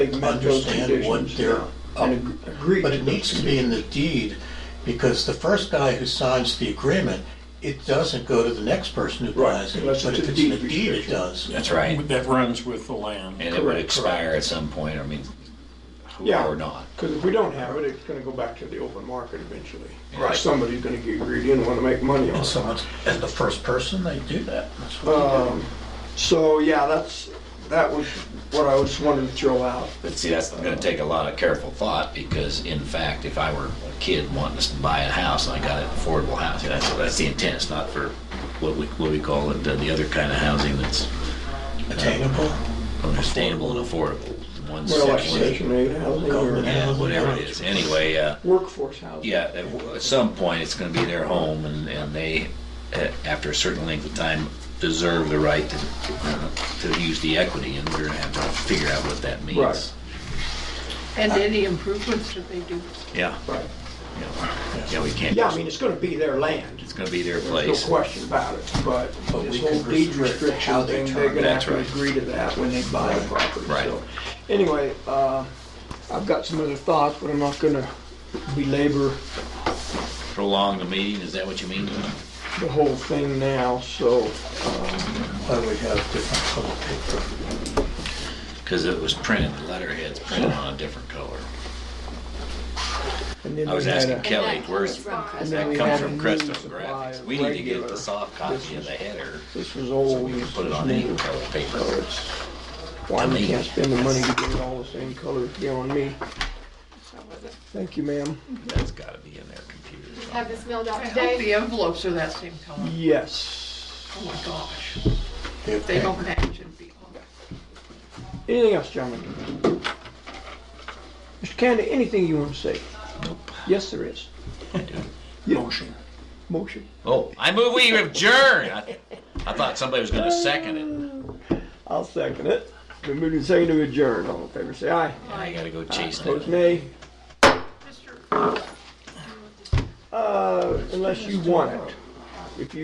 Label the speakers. Speaker 1: big met those
Speaker 2: understand what
Speaker 1: conditions.
Speaker 2: they're
Speaker 1: And
Speaker 2: up
Speaker 1: ag- agreed
Speaker 2: But
Speaker 1: to
Speaker 2: it
Speaker 1: those
Speaker 2: needs to be in the deed, because the first guy who signs the agreement, it doesn't go to the next person who
Speaker 1: Right,
Speaker 2: buys it.
Speaker 1: unless
Speaker 2: But
Speaker 1: it's
Speaker 2: if
Speaker 1: a
Speaker 2: it's in the
Speaker 1: deed
Speaker 2: deed, it
Speaker 1: restriction.
Speaker 2: does.
Speaker 3: That's right.
Speaker 4: That runs with the land.
Speaker 3: And it would
Speaker 1: Correct,
Speaker 3: expire at some point, I mean, who
Speaker 1: Yeah.
Speaker 3: or not.
Speaker 1: Because if we don't have it, it's gonna go back to the open market eventually.
Speaker 2: Right.
Speaker 1: Somebody's gonna get greedy and wanna make money on
Speaker 2: And
Speaker 1: it.
Speaker 2: someone's, and the first person, they do that. That's what they do.
Speaker 1: Um, So, yeah, that's, that was what I was wanting to throw out.
Speaker 3: But see, that's gonna take a lot of careful thought, because in fact, if I were a kid wanting to buy a house, and I got an affordable house, that's, that's the intent, it's not for what we, what we call it, uh, the other kind of housing that's
Speaker 1: Uh,
Speaker 2: Attainable,
Speaker 3: understandable and affordable. One's-
Speaker 1: Well, like
Speaker 3: one's-
Speaker 1: Section 8 housing or
Speaker 2: Government.
Speaker 3: Yeah, whatever it is, anyway, uh,
Speaker 1: workforce housing.
Speaker 3: yeah, at w- at some point, it's gonna be their home, and, and they, uh, after a certain length of time, deserve the right to, uh, to use the equity, and we're gonna have to figure out what that means.
Speaker 1: Right.
Speaker 5: And any improvements that they do.
Speaker 3: Yeah.
Speaker 1: Right.
Speaker 3: Yeah, Yeah, we can't,
Speaker 1: Yeah, I mean, it's gonna be their land.
Speaker 3: it's gonna be their
Speaker 1: No
Speaker 3: place.
Speaker 1: question about it, but
Speaker 2: But
Speaker 1: this
Speaker 2: we
Speaker 1: whole
Speaker 2: can
Speaker 1: deed
Speaker 2: restrict how
Speaker 1: restriction
Speaker 2: they
Speaker 1: thing,
Speaker 2: turn-
Speaker 1: they're gonna have
Speaker 3: That's
Speaker 1: to
Speaker 3: right.
Speaker 1: agree to that when they buy the property.
Speaker 3: Right.
Speaker 1: So, Anyway, uh, I've got some other thoughts, but I'm not gonna belabor
Speaker 3: Prolong the meeting, is that what you mean?
Speaker 1: the whole thing now, so,
Speaker 2: why we have different color paper.
Speaker 3: Because it was printed, the letterhead's printed on a different color.
Speaker 1: and then
Speaker 3: I was
Speaker 1: we had
Speaker 3: asking
Speaker 1: a-
Speaker 3: Kelly, where's,
Speaker 1: and
Speaker 5: From
Speaker 1: then
Speaker 3: that
Speaker 1: we
Speaker 3: comes
Speaker 1: had a
Speaker 3: from
Speaker 1: new
Speaker 3: Crestone
Speaker 1: supply
Speaker 3: Graphics.
Speaker 1: of
Speaker 3: We need to get
Speaker 1: regular-
Speaker 3: the soft
Speaker 1: this
Speaker 3: copy of
Speaker 1: was-
Speaker 3: the header,
Speaker 1: This was old.
Speaker 3: so we can put it on any color
Speaker 1: So
Speaker 3: paper.
Speaker 1: it's- Why we
Speaker 3: mean-
Speaker 1: can't spend the money to get it all the same color beyond me. Thank you, ma'am.
Speaker 3: That's gotta be in their computer.
Speaker 6: um, have this mailed out
Speaker 5: I hope
Speaker 6: today.
Speaker 5: the envelopes are that same color.
Speaker 1: Yes.
Speaker 5: Oh my gosh.
Speaker 2: They're
Speaker 5: If they
Speaker 2: paying.
Speaker 5: don't match, it'd be awful.
Speaker 1: Anything else, gentlemen? Mr. Candy, anything you want to say?
Speaker 3: Nope.
Speaker 1: Yes, there is.
Speaker 4: Motion.
Speaker 1: Motion.
Speaker 3: Oh, I move we adjourn. I I thought somebody was gonna second it.
Speaker 1: I'll second it. Been moved and seconded to adjourn. All in favor, say aye.
Speaker 3: I gotta go chase
Speaker 1: Opposed,
Speaker 3: that.
Speaker 1: nay.
Speaker 5: Mr.
Speaker 1: Uh, unless you want it. If you